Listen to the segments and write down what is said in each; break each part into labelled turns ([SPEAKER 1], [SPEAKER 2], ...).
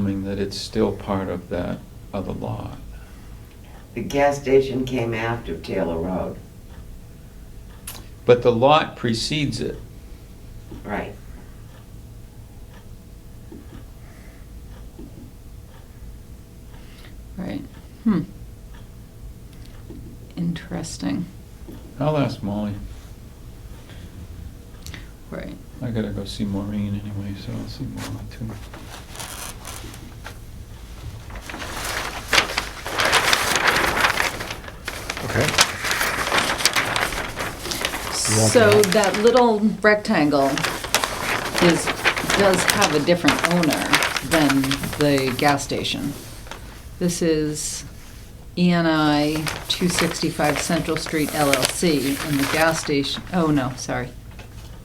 [SPEAKER 1] assuming that it's still part of that other lot.
[SPEAKER 2] The gas station came after Taylor Road,
[SPEAKER 1] But the lot precedes it.
[SPEAKER 2] right?
[SPEAKER 3] Right. Hmm. Interesting.
[SPEAKER 1] I'll ask Molly.
[SPEAKER 3] Right.
[SPEAKER 1] I gotta go see Maureen anyway, so I'll see Molly too.
[SPEAKER 4] Okay.
[SPEAKER 3] So that little rectangle is, does have a different owner than the gas station. This is E ENI 265 Central Street LLC, and the gas station, oh no, sorry,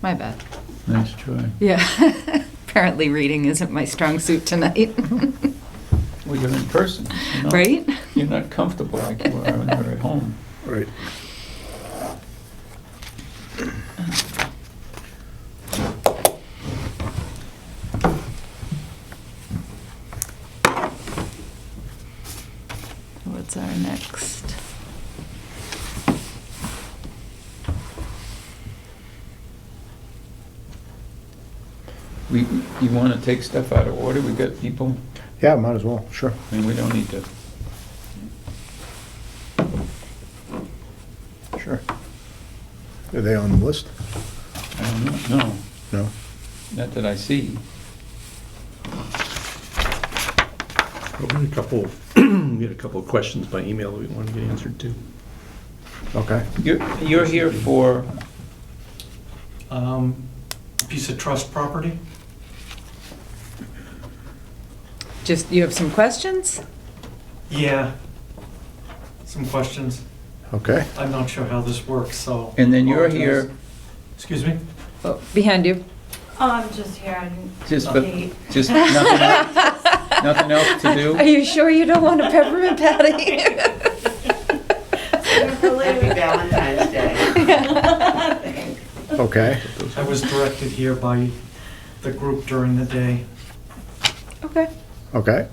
[SPEAKER 3] my bad.
[SPEAKER 1] Nice try.
[SPEAKER 3] Yeah, apparently reading isn't my strong suit tonight.
[SPEAKER 1] Well, you're in person. you know?
[SPEAKER 3] Right?
[SPEAKER 1] You're not comfortable like you are when you're at home.
[SPEAKER 4] Right.
[SPEAKER 3] What's our next?
[SPEAKER 1] We, you wanna take stuff out of order? We got people,
[SPEAKER 4] Yeah, might as well, sure.
[SPEAKER 1] I mean, we don't need to.
[SPEAKER 4] Sure. Are they on the list?
[SPEAKER 1] I don't know, no,
[SPEAKER 4] No?
[SPEAKER 1] not that I see.
[SPEAKER 5] Probably a couple, we had a couple of questions by email that we wanted to get answered too.
[SPEAKER 4] Okay.
[SPEAKER 1] You're, you're here for,
[SPEAKER 6] Um, Piece of trust property?
[SPEAKER 3] Just, you have some questions?
[SPEAKER 6] Yeah. Some questions.
[SPEAKER 4] Okay.
[SPEAKER 6] I'm not sure how this works, so.
[SPEAKER 1] and then you're here,
[SPEAKER 6] Excuse me?
[SPEAKER 3] Oh, Behind you.
[SPEAKER 7] Oh, I'm just here. I'm
[SPEAKER 1] just, but-
[SPEAKER 7] late.
[SPEAKER 1] just nothing else, nothing else to do?
[SPEAKER 3] Are you sure you don't want a peppermint patty?
[SPEAKER 2] Happy Valentine's Day.
[SPEAKER 4] Okay.
[SPEAKER 6] I was directed here by the group during the day.
[SPEAKER 3] Okay.
[SPEAKER 4] Okay.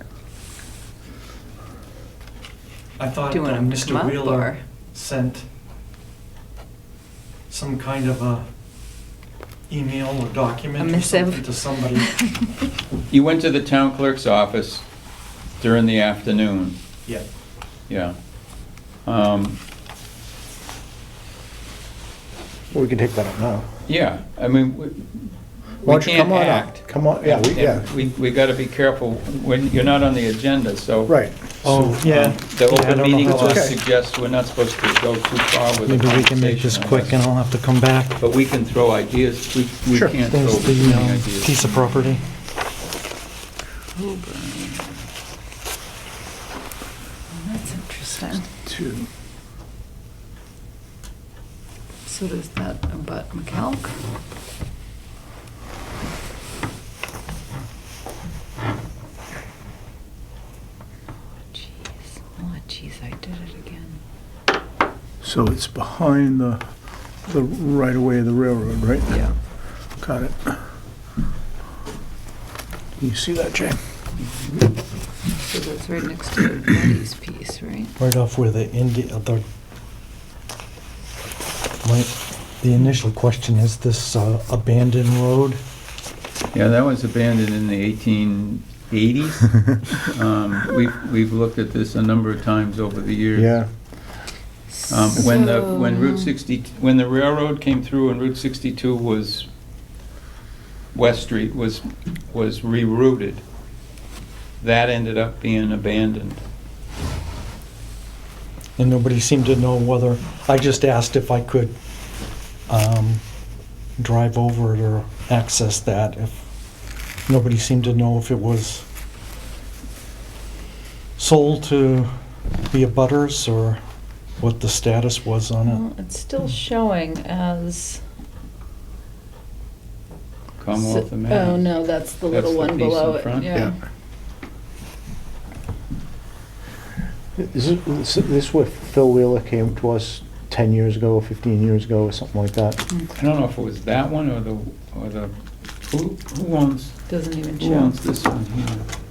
[SPEAKER 6] I thought
[SPEAKER 3] Do you
[SPEAKER 6] uh,
[SPEAKER 3] want to
[SPEAKER 6] Mr.
[SPEAKER 3] come up
[SPEAKER 6] Wheeler
[SPEAKER 3] or?
[SPEAKER 6] sent some kind of a email or document
[SPEAKER 3] A
[SPEAKER 6] or
[SPEAKER 3] missive.
[SPEAKER 6] something to somebody.
[SPEAKER 1] You went to the town clerk's office during the afternoon,
[SPEAKER 6] Yeah.
[SPEAKER 1] yeah. Um,
[SPEAKER 4] Well, we can take that up now.
[SPEAKER 1] Yeah, I mean, we-
[SPEAKER 4] Why
[SPEAKER 1] we
[SPEAKER 4] don't you come
[SPEAKER 1] can't
[SPEAKER 4] on up?
[SPEAKER 1] act.
[SPEAKER 4] Come on, yeah, we- yeah.
[SPEAKER 1] We, we gotta be careful when, you're not on the agenda, so.
[SPEAKER 4] Right.
[SPEAKER 1] um,
[SPEAKER 8] Oh, yeah.
[SPEAKER 1] The
[SPEAKER 8] Yeah, I don't
[SPEAKER 1] open
[SPEAKER 8] know
[SPEAKER 1] meeting
[SPEAKER 8] how
[SPEAKER 1] law
[SPEAKER 4] that's-
[SPEAKER 1] suggests we're not supposed to go too far with the
[SPEAKER 8] Maybe we can make this
[SPEAKER 1] conversation, I
[SPEAKER 8] quick and
[SPEAKER 1] guess.
[SPEAKER 8] I'll have to come back.
[SPEAKER 1] But we can throw ideas, we, we
[SPEAKER 4] Sure.
[SPEAKER 1] can't throw
[SPEAKER 8] There's
[SPEAKER 1] too
[SPEAKER 8] the
[SPEAKER 1] many
[SPEAKER 8] um,
[SPEAKER 1] ideas.
[SPEAKER 8] piece of property.
[SPEAKER 3] Oh, That's interesting.
[SPEAKER 4] Two.
[SPEAKER 3] So does that about McCalc? Jeez, oh jeez, I did it again.
[SPEAKER 4] So it's behind the, the right away of the railroad, right?
[SPEAKER 3] Yeah.
[SPEAKER 4] Got it. You see that, Jay?
[SPEAKER 3] So that's right next to the Betty's piece, right?
[SPEAKER 8] Right off where the end, the, my, the initial question, is this uh, abandoned road?
[SPEAKER 1] Yeah, that was abandoned in the eighteen eighties. Um, we've, we've looked at this a number of times over the years.
[SPEAKER 4] Yeah.
[SPEAKER 1] Um, When the, when Route
[SPEAKER 3] So-
[SPEAKER 1] 60, when the railroad came through and Route 62 was, West Street was, was rerouted, that ended up being abandoned.
[SPEAKER 8] And nobody seemed to know whether, I just asked if I could um, drive over it or access that. If Nobody seemed to know if it was sold to the abutters or what the status was on it.
[SPEAKER 3] Well, it's still showing as.
[SPEAKER 1] Commonwealth of Mass.
[SPEAKER 3] Oh, no, that's the
[SPEAKER 1] That's
[SPEAKER 3] little
[SPEAKER 1] the
[SPEAKER 3] one
[SPEAKER 1] piece in
[SPEAKER 3] below it,
[SPEAKER 1] front?
[SPEAKER 3] yeah.
[SPEAKER 4] Is it- is this where Phil Wheeler came to us 10 years ago, 15 years ago, or something like that?
[SPEAKER 3] Hmm,
[SPEAKER 1] I don't know if it was that one or the, or the, who, who owns,
[SPEAKER 3] Doesn't even
[SPEAKER 1] who
[SPEAKER 3] show.
[SPEAKER 1] owns this one here?